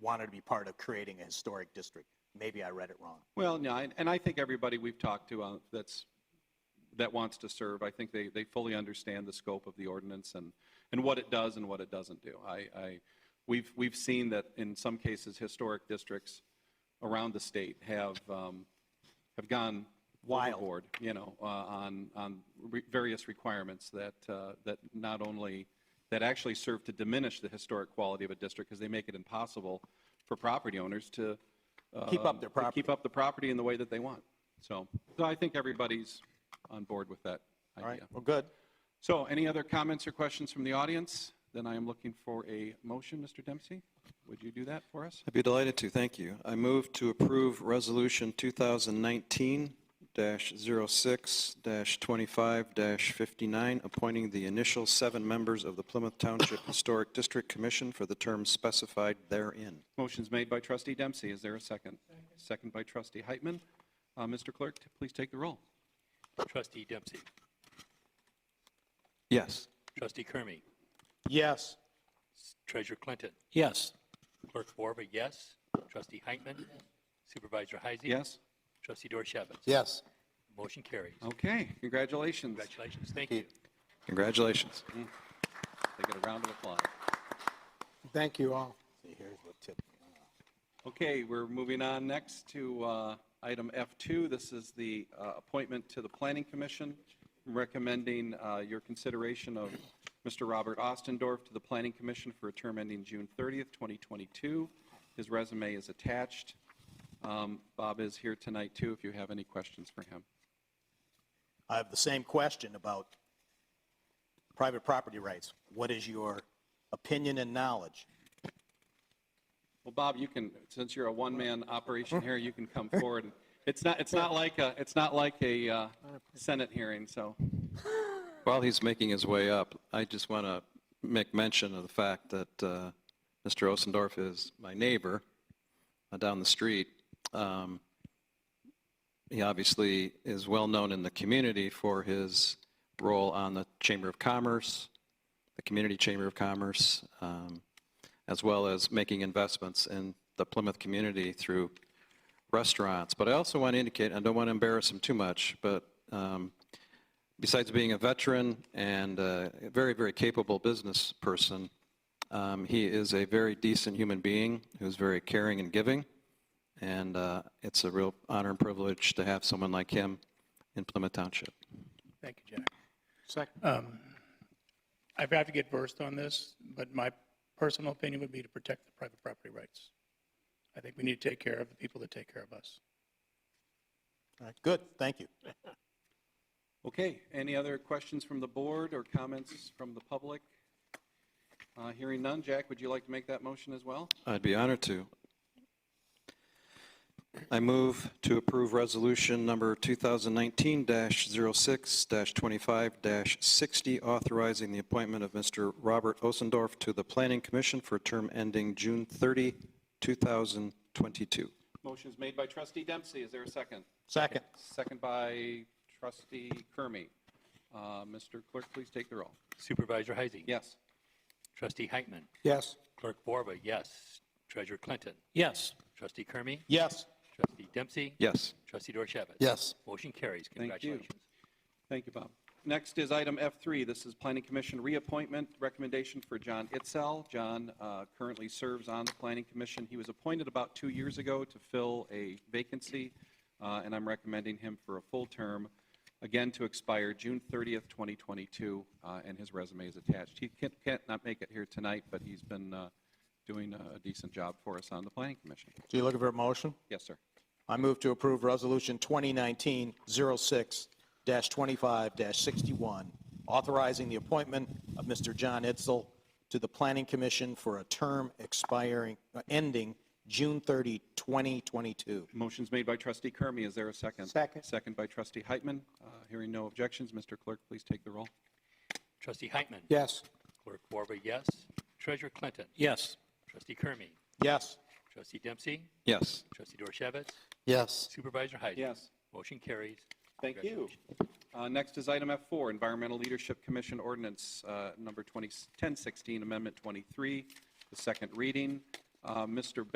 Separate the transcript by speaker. Speaker 1: wanted to be part of creating a historic district. Maybe I read it wrong.
Speaker 2: Well, yeah, and- and I think everybody we've talked to uh, that's, that wants to serve, I think they, they fully understand the scope of the ordinance and, and what it does and what it doesn't do. I, I, we've, we've seen that in some cases, historic districts around the state have, um, have gone
Speaker 1: Wild.
Speaker 2: overboard, you know, uh, on, on re- various requirements that, uh, that not only, that actually serve to diminish the historic quality of a district because they make it impossible for property owners to,
Speaker 1: Keep up
Speaker 2: um,
Speaker 1: their
Speaker 2: to
Speaker 1: property.
Speaker 2: Keep up the property in the way that they want. So, so I think everybody's on board with that
Speaker 1: All right,
Speaker 2: idea.
Speaker 1: well, good.
Speaker 2: So any other comments or questions from the audience? Then I am looking for a motion, Mr. Dempsey. Would you do that for us?
Speaker 3: I'd be delighted to, thank you. I move to approve Resolution 2019-06-25-59, appointing the initial seven members of the Plymouth Township Historic District Commission for the terms specified therein.
Speaker 2: Motion's made by trustee Dempsey. Is there a second? Second by trustee Heitman. Uh, Mr. Clerk, t- please take the roll.
Speaker 4: Trustee Dempsey.
Speaker 3: Yes.
Speaker 4: Trustee Kermy.
Speaker 1: Yes,
Speaker 4: Treasurer Clinton.
Speaker 5: yes,
Speaker 4: Clerk Borba, yes. Trustee Heitman. Supervisor Heisey.
Speaker 2: Yes? Oh.
Speaker 4: Trustee Dorchevitz.
Speaker 6: Yes.
Speaker 4: Motion carries.
Speaker 2: Okay, congratulations.
Speaker 4: Congratulations. Thank you.
Speaker 3: Congratulations.
Speaker 2: They get a round of applause.
Speaker 6: Thank you all.
Speaker 2: Okay, we're moving on next to uh, item F2. This is the uh, appointment to the Planning Commission, recommending uh, your consideration of Mr. Robert Ostendorf to the Planning Commission for a term ending June 30th, 2022. His resume is attached. Um, Bob is here tonight, too, if you have any questions for him.
Speaker 1: I have the same question about private property rights. What is your opinion and knowledge?
Speaker 2: Well, Bob, you can, since you're a one-man operation here, you can come forward. It's not, it's not like a, it's not like a uh, Senate hearing, so.
Speaker 3: While he's making his way up, I just want to make mention of the fact that uh, Mr. Osendorf is my neighbor uh, down the street. Um, He obviously is well-known in the community for his role on the Chamber of Commerce, the Community Chamber of Commerce, um, as well as making investments in the Plymouth community through restaurants. But I also want to indicate, I don't want to embarrass him too much, but um, besides being a veteran and uh, a very, very capable business person, um, he is a very decent human being who's very caring and giving. And uh, it's a real honor and privilege to have someone like him in Plymouth Township.
Speaker 7: Thank you, Jack. Second. I've got to get versed on this, but my personal opinion would be to protect the private property rights. I think we need to take care of the people that take care of us.
Speaker 1: All right, good, thank you.
Speaker 2: Okay, any other questions from the board or comments from the public? Uh, Hearing none, Jack, would you like to make that motion as well?
Speaker 3: I'd be honored to. I move to approve resolution number 2019-06-25-60, authorizing the appointment of Mr. Robert Osendorf to the Planning Commission for a term ending June 30, 2022.
Speaker 2: Motion's made by trustee Dempsey, is there a second?
Speaker 1: Second,
Speaker 2: Second by trustee Kermy. Uh, Mr. Clerk, please take the roll.
Speaker 4: Supervisor Heisey.
Speaker 2: Yes?
Speaker 4: Trustee Heitman.
Speaker 6: Yes.
Speaker 4: Clerk Borba, yes. Treasurer Clinton.
Speaker 5: yes.
Speaker 4: Trustee Kermy.
Speaker 1: yes,
Speaker 4: Trustee Dempsey.
Speaker 3: Yes.
Speaker 4: Trustee Dorchevitz.
Speaker 6: Yes.
Speaker 4: Motion carries.
Speaker 2: you.
Speaker 4: Congratulations.
Speaker 2: Thank you, Bob. Next is item F3. This is Planning Commission reappointment recommendation for John Itzel. John uh, currently serves on the Planning Commission. He was appointed about two years ago to fill a vacancy, uh, and I'm recommending him for a full term, again to expire June 30th, 2022, uh, and his resume is attached. He can't- can't not make it here tonight, but he's been uh, doing a decent job for us on the Planning Commission.
Speaker 1: so you looking for a motion?
Speaker 2: Yes, sir.
Speaker 1: I move to approve Resolution 2019-06-25-61, authorizing the appointment of Mr. John Itzel to the Planning Commission for a term expiring, uh, ending June 30, 2022.
Speaker 2: Motion's made by trustee Kermy. Is there a second?
Speaker 6: Second.
Speaker 2: Second by trustee Heitman. Uh, Hearing no objections, Mr. Clerk, please take the roll.
Speaker 4: Trustee Heitman.
Speaker 6: Yes.
Speaker 4: Clerk Borba, yes. Treasurer Clinton.
Speaker 5: Yes.
Speaker 4: Trustee Kermy.
Speaker 1: Yes,
Speaker 4: Trustee Dempsey.
Speaker 3: Yes.
Speaker 4: Trustee Dorchevitz.
Speaker 6: Yes.
Speaker 4: Supervisor Heisey.
Speaker 2: Yes.
Speaker 4: Motion carries.
Speaker 2: Thank you. Uh, Next is item F4, Environmental Leadership Commission Ordinance uh, Number 20 1016, Amendment 23, the second reading. Uh, Mr.